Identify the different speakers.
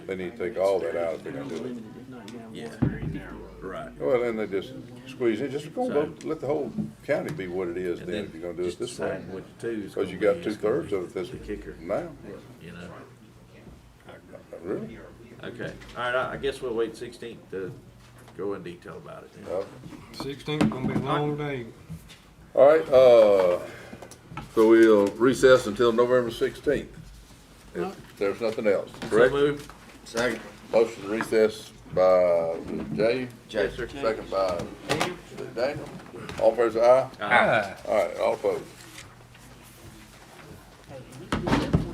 Speaker 1: They need to take all that out if they're gonna do it.
Speaker 2: Yeah. Right.
Speaker 1: Well, then they just squeeze it, just go,
Speaker 2: So-
Speaker 1: let the whole county be what it is
Speaker 2: And
Speaker 1: then, if you're gonna do it
Speaker 2: just
Speaker 1: this way.
Speaker 2: decide What two is.
Speaker 1: Cause you
Speaker 2: gonna
Speaker 1: got
Speaker 2: be,
Speaker 1: two
Speaker 2: it's gonna
Speaker 1: thirds
Speaker 2: be
Speaker 1: of it this,
Speaker 2: The kicker,
Speaker 1: now,
Speaker 2: you know?
Speaker 1: really?
Speaker 2: Okay, all right, I, I guess we'll wait sixteenth to go in detail about it. then.
Speaker 1: Well,
Speaker 3: Sixteenth gonna be a long day.
Speaker 1: All right, uh, so we'll recess until November sixteenth. If there's nothing else,
Speaker 2: So
Speaker 1: correct?
Speaker 2: move,
Speaker 1: Second. Motion to recess by Jay.
Speaker 2: Jay. Yes, sir.
Speaker 1: Second by Daniel. All favors, aye?
Speaker 2: Aye.
Speaker 1: All right, all opposed.